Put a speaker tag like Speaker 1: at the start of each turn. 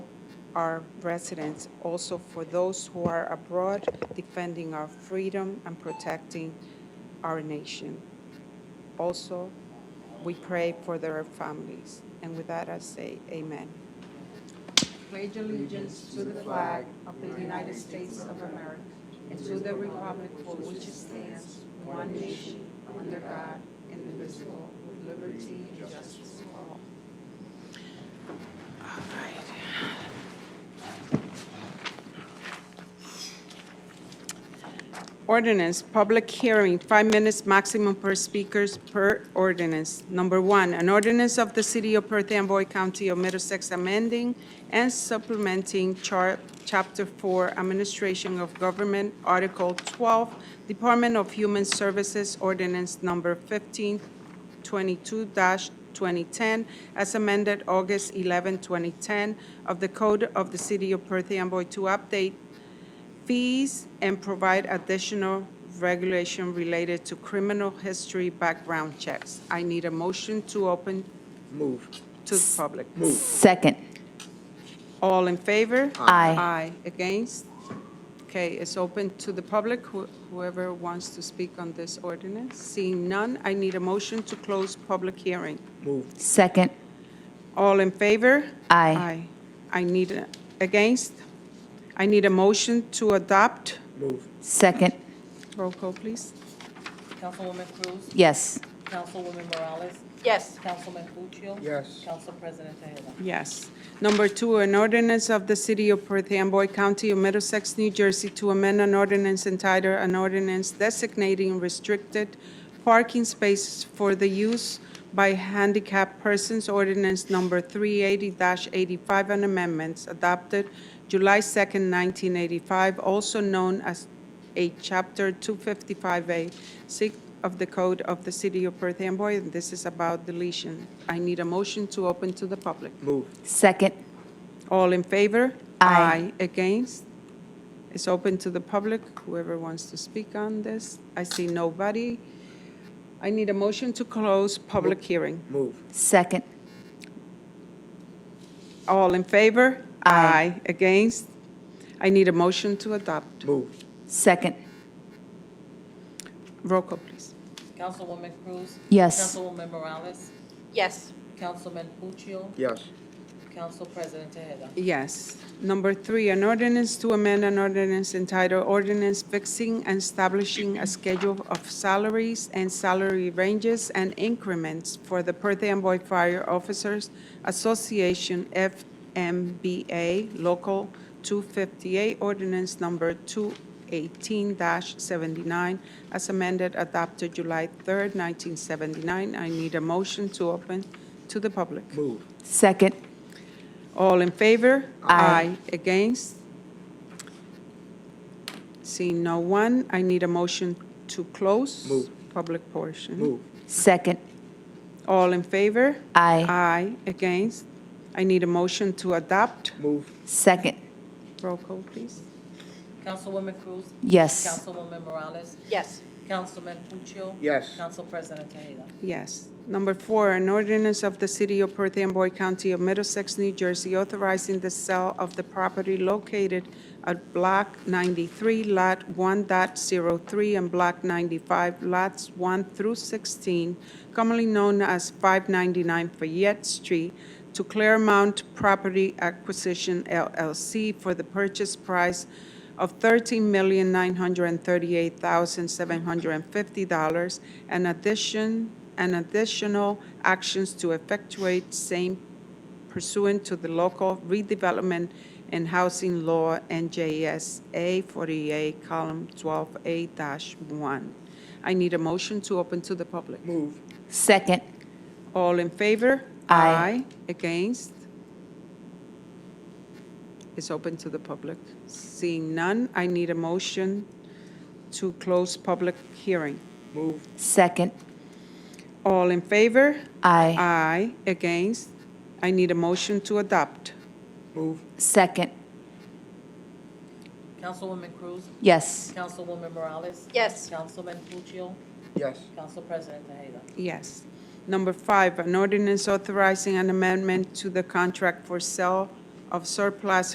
Speaker 1: our residents, also for those who are abroad, defending our freedom and protecting our nation. Also, we pray for their families. And with that, I say amen.
Speaker 2: pledge allegiance to the flag of the United States of America and to the republic for which it stands, one nation, under God, indivisible, with liberty and justice for all.
Speaker 1: Ordinance, public hearing, five minutes maximum per speakers per ordinance. Number one, an ordinance of the City of Perth Amboy County of Middlesex amending and supplementing Char- Chapter 4 Administration of Government, Article 12, Department of Human Services, Ordinance Number 1522-2010, as amended August 11, 2010, of the Code of the City of Perth Amboy to update fees and provide additional regulation related to criminal history background checks. I need a motion to open
Speaker 3: Move.
Speaker 1: to the public.
Speaker 4: Second.
Speaker 1: All in favor?
Speaker 4: Aye.
Speaker 1: Aye. Against? Okay, it's open to the public, Who- whoever wants to speak on this ordinance. Seeing none, I need a motion to close public hearing.
Speaker 3: Move.
Speaker 4: Second.
Speaker 1: All in favor?
Speaker 4: Aye.
Speaker 1: Aye. I need, a- against? I need a motion to adopt.
Speaker 3: Move.
Speaker 4: Second.
Speaker 1: Roll call, please.
Speaker 5: Councilwoman Cruz?
Speaker 4: Yes.
Speaker 5: Councilwoman Morales?
Speaker 1: Yes.
Speaker 5: Councilman Puccio?
Speaker 3: Yes.
Speaker 5: Council President Tejeda?
Speaker 1: Yes. Number two, an ordinance of the City of Perth Amboy County of Middlesex, New Jersey to amend an ordinance entitled an ordinance designating restricted parking spaces for the use by handicapped persons, ordinance number 380-85 and amendments adopted July 2nd, 1985, also known as a Chapter 255A, 6 of the Code of the City of Perth Amboy, and this is about deletion. I need a motion to open to the public.
Speaker 3: Move.
Speaker 4: Second.
Speaker 1: All in favor?
Speaker 4: Aye.
Speaker 1: Against? It's open to the public, whoever wants to speak on this. I see nobody. I need a motion to close public hearing.
Speaker 3: Move.
Speaker 4: Second.
Speaker 1: All in favor?
Speaker 4: Aye.
Speaker 1: Against? I need a motion to adopt.
Speaker 3: Move.
Speaker 4: Second.
Speaker 1: Roll call, please.
Speaker 5: Councilwoman Cruz?
Speaker 4: Yes.
Speaker 5: Councilwoman Morales?
Speaker 2: Yes.
Speaker 5: Councilman Puccio?
Speaker 3: Yes.
Speaker 5: Council President Tejeda?
Speaker 1: Yes. Number three, an ordinance to amend an ordinance entitled Ordinance Fixing and Establishing a Schedule of Salaries and Salary Ranges and Increments for the Perth Amboy Fire Officers Association, FMBA, Local 258, Ordinance Number 218-79, as amended, adopted July 3rd, 1979. I need a motion to open to the public.
Speaker 3: Move.
Speaker 4: Second.
Speaker 1: All in favor?
Speaker 4: Aye.
Speaker 1: Against? Seeing no one, I need a motion to close.
Speaker 3: Move.
Speaker 1: Public portion.
Speaker 3: Move.
Speaker 4: Second.
Speaker 1: All in favor?
Speaker 4: Aye.
Speaker 1: Aye. Against? I need a motion to adopt.
Speaker 3: Move.
Speaker 4: Second.
Speaker 1: Roll call, please.
Speaker 5: Councilwoman Cruz?
Speaker 4: Yes.
Speaker 5: Councilwoman Morales?
Speaker 2: Yes.
Speaker 5: Councilman Puccio?
Speaker 3: Yes.
Speaker 5: Council President Tejeda?
Speaker 1: Yes. Number four, an ordinance of the City of Perth Amboy County of Middlesex, New Jersey, authorizing the sale of the property located at Block 93, Lot 1.03, and Block 95, Lots 1 through 16, commonly known as 599 Fayette Street, to Claremont Property Acquisition LLC for the purchase price of $13,938,750 and addition, and additional actions to effectuate same pursuant to the local redevelopment and housing law NJSA 48, column 12A-1. I need a motion to open to the public.
Speaker 3: Move.
Speaker 4: Second.
Speaker 1: All in favor?
Speaker 4: Aye.
Speaker 1: Against? It's open to the public. Seeing none, I need a motion to close public hearing.
Speaker 3: Move.
Speaker 4: Second.
Speaker 1: All in favor?
Speaker 4: Aye.
Speaker 1: Aye. Against? I need a motion to adopt.
Speaker 3: Move.
Speaker 4: Second.
Speaker 5: Councilwoman Cruz?
Speaker 4: Yes.
Speaker 5: Councilwoman Morales?
Speaker 2: Yes.
Speaker 5: Councilman Puccio?
Speaker 3: Yes.
Speaker 5: Council President Tejeda?
Speaker 1: Yes. Number five, an ordinance authorizing an amendment to the contract for sale of surplus